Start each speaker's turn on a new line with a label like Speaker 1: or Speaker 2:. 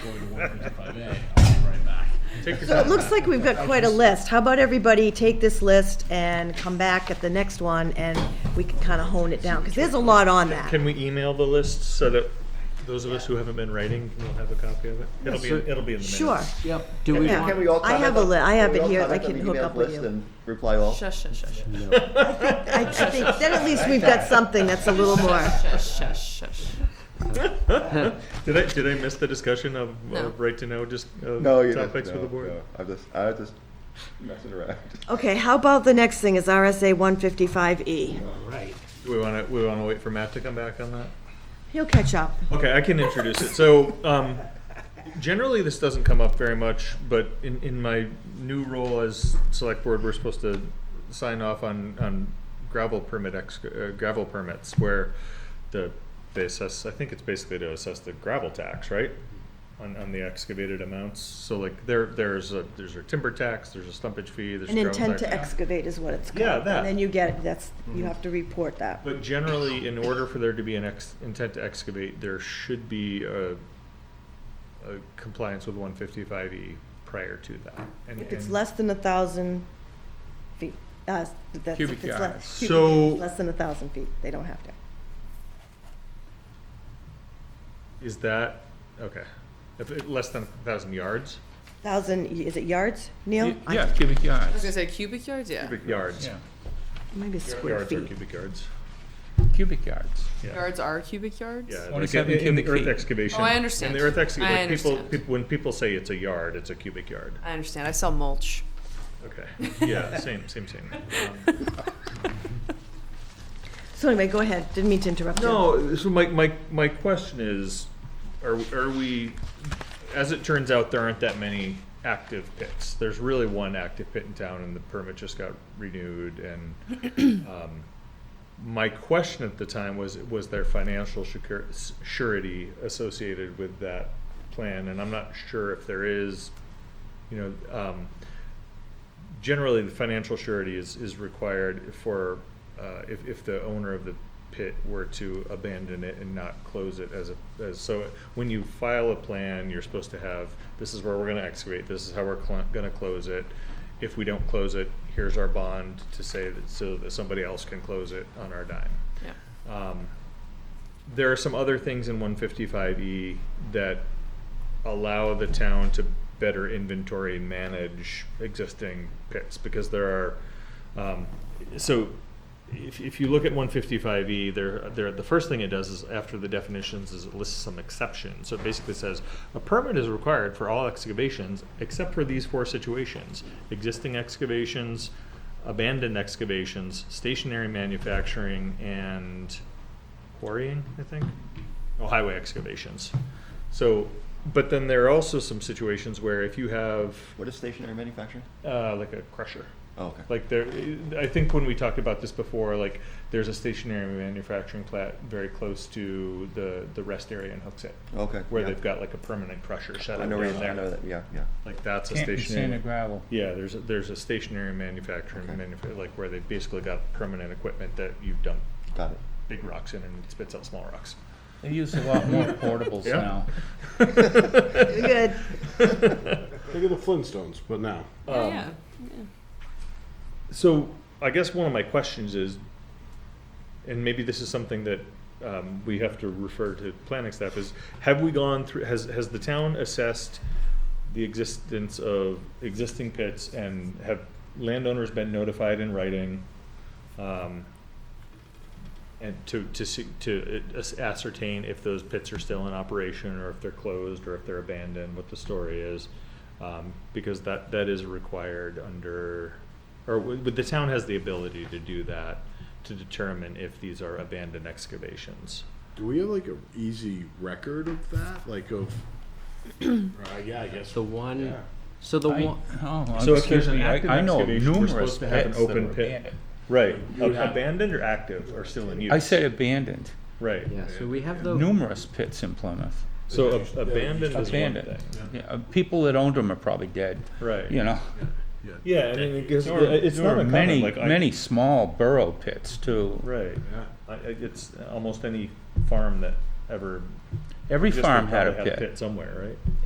Speaker 1: if I may, I'll be right back.
Speaker 2: Take
Speaker 3: So it looks like we've got quite a list. How about everybody take this list and come back at the next one and we can kind of hone it down, because there's a lot on that.
Speaker 2: Can we email the list so that those of us who haven't been writing will have a copy of it? It'll be, in- it'll be in the minutes.
Speaker 3: Sure.
Speaker 4: Yep. Do we
Speaker 3: Yeah.
Speaker 4: want?
Speaker 5: Can we all
Speaker 3: I
Speaker 5: comment
Speaker 3: have a
Speaker 5: on-
Speaker 3: li- I have
Speaker 5: can we
Speaker 3: it
Speaker 5: all
Speaker 3: here. I
Speaker 5: comment on
Speaker 3: can
Speaker 5: the
Speaker 3: hook
Speaker 5: emailed
Speaker 3: up with
Speaker 5: list
Speaker 3: you.
Speaker 5: and Reply all.
Speaker 6: Shush, shush, shush,
Speaker 3: I think, then at least we've got something that's a little more.
Speaker 6: shush, shush, shush.
Speaker 2: Did I, did I miss the discussion of
Speaker 6: No.
Speaker 2: of right to know just uh,
Speaker 5: No, you
Speaker 2: topics
Speaker 5: no,
Speaker 2: for the board?
Speaker 5: no. I'm just, I just messing around.
Speaker 3: Okay, how about the next thing is RSA 155E?
Speaker 2: Do we want to, we want to wait for Matt to come back on that?
Speaker 3: He'll catch up.
Speaker 2: Okay, I can introduce it. So, um, generally, this doesn't come up very much, but in, in my new role as select board, we're supposed to sign off on, on gravel permit ex, uh, gravel permits where the, they assess, I think it's basically to assess the gravel tax, right? On, on the excavated amounts. So like there, there's a, there's a timber tax, there's a stumpage fee, there's
Speaker 3: An
Speaker 2: gravel
Speaker 3: intent to
Speaker 2: tax.
Speaker 3: excavate is what it's called.
Speaker 2: Yeah, that. Mm-hmm.
Speaker 3: And then you get, that's, you have to report that.
Speaker 2: But generally, in order for there to be an ex, intent to excavate, there should be a, a compliance with one fifty-five E prior to that. And-
Speaker 3: If it's
Speaker 2: and-
Speaker 3: less than a thousand feet, uh, that's, if
Speaker 2: Cubic
Speaker 3: it's less.
Speaker 2: yards.
Speaker 3: cubic-
Speaker 2: So-
Speaker 3: Less than a thousand feet, they don't have to.
Speaker 2: Is that, okay, if, it- less than a thousand yards,
Speaker 3: Thousand, is it yards, Neil? I-
Speaker 7: Yeah, cubic
Speaker 6: I was
Speaker 7: yards.
Speaker 6: gonna say cubic yards, yeah.
Speaker 2: cubic yards.
Speaker 7: Yeah,
Speaker 3: Maybe square
Speaker 2: Yards or
Speaker 3: feet.
Speaker 2: cubic yards,
Speaker 7: cubic yards.
Speaker 6: Yards are cubic yards?
Speaker 2: yeah. like
Speaker 7: 27
Speaker 2: in- in the
Speaker 7: cubic
Speaker 2: earth
Speaker 7: feet.
Speaker 2: excavation.
Speaker 6: Oh, I understand.
Speaker 2: In the earth
Speaker 6: I
Speaker 2: excavation, like people,
Speaker 6: understand.
Speaker 2: peop- when people say it's a yard, it's a cubic yard.
Speaker 6: I understand, I sell mulch.
Speaker 2: Okay, yeah, same, same, same. Um,
Speaker 3: So anyway, go ahead, didn't mean to interrupt you.
Speaker 2: No, so my, my, my question is, are, are we, as it turns out, there aren't that many active pits. There's really one active pit in town and the permit just got renewed and, um, my question at the time was, was there financial secur- s- surety associated with that plan? And I'm not sure if there is, you know, um, generally the financial surety is, is required for, uh, if, if the owner of the pit were to abandon it and not close it as a, as, so when you file a plan, you're supposed to have, this is where we're gonna excavate, this is how we're cl- gonna close it. If we don't close it, here's our bond to say that, so that somebody else can close it on our dime.
Speaker 6: Yeah.
Speaker 2: Um, there are some other things in one fifty-five E that allow the town to better inventory and manage existing pits, because there are, um, so if, if you look at one fifty-five E, there, there, the first thing it does is, after the definitions, is it lists some exceptions. So it basically says, a permit is required for all excavations except for these four situations, existing excavations, abandoned excavations, stationary manufacturing, and quarrying, I think, oh, highway excavations. So, but then there are also some situations where if you have,
Speaker 5: What is stationary manufacturing?
Speaker 2: uh, like a crusher,
Speaker 5: Oh, okay.
Speaker 2: like there, I think when we talked about this before, like there's a stationary manufacturing plant very close to the, the rest area in Hooksett,
Speaker 5: Okay.
Speaker 2: where
Speaker 5: yeah.
Speaker 2: they've got like a permanent crusher set
Speaker 5: I
Speaker 2: up
Speaker 5: know,
Speaker 2: down
Speaker 5: where- I know
Speaker 2: there.
Speaker 5: that, yeah, yeah.
Speaker 2: Like that's a
Speaker 7: Can't be sand or
Speaker 2: stationary.
Speaker 7: gravel.
Speaker 2: Yeah, there's, a- there's a stationary manufacturing,
Speaker 5: Okay.
Speaker 2: manufa- like where they've basically got permanent equipment that you dump
Speaker 5: Got it.
Speaker 2: big rocks in and it spits out small rocks.
Speaker 7: They use a lot more portables
Speaker 2: Yeah.
Speaker 7: now.
Speaker 3: You're good.
Speaker 8: Think of the Flintstones, but now.
Speaker 6: Yeah,
Speaker 2: Um,
Speaker 6: yeah.
Speaker 2: So I guess one of my questions is, and maybe this is something that um, we have to refer to planning staff is, have we gone through, has, has the town assessed the existence of existing pits and have landowners been notified in writing? um, And to, to, see- to uh, as- ascertain if those pits are still in operation or if they're closed or if they're abandoned, what the story is? Um, because that, that is required under, or, w- but the town has the ability to do that, to determine if these are abandoned excavations.
Speaker 8: Do we have like an easy record of that? Like of, Uh, yeah, I guess.
Speaker 9: The one,
Speaker 8: Yeah.
Speaker 9: so the
Speaker 7: I-
Speaker 9: one,
Speaker 7: Oh,
Speaker 2: So if
Speaker 7: excuse
Speaker 2: there's an
Speaker 7: me, I-
Speaker 2: active
Speaker 7: I know of
Speaker 2: excavation, we're
Speaker 7: numerous
Speaker 2: supposed to have an
Speaker 7: pits that
Speaker 2: open
Speaker 7: were
Speaker 2: pit.
Speaker 7: abandoned.
Speaker 2: Right,
Speaker 8: would have-
Speaker 2: abandoned or active or still in use?
Speaker 7: I said abandoned,
Speaker 2: Right,
Speaker 9: yeah, so we have
Speaker 2: Oh.
Speaker 9: the,
Speaker 7: numerous pits in Plymouth,
Speaker 2: so ab- abandoned is one
Speaker 7: abandoned.
Speaker 2: thing,
Speaker 7: Yeah, uh, People that owned them are probably dead,
Speaker 2: right.
Speaker 7: you know?
Speaker 2: Yeah, I mean, because
Speaker 7: There were-
Speaker 2: it's
Speaker 7: there
Speaker 2: not
Speaker 7: were
Speaker 2: uncommon,
Speaker 7: Many,
Speaker 2: like I-
Speaker 7: many small burrow pits too.
Speaker 2: Right. I, I- it's almost any farm that ever.
Speaker 7: Every
Speaker 2: existed
Speaker 7: farm had a
Speaker 2: probably
Speaker 7: pit.
Speaker 2: somewhere, right?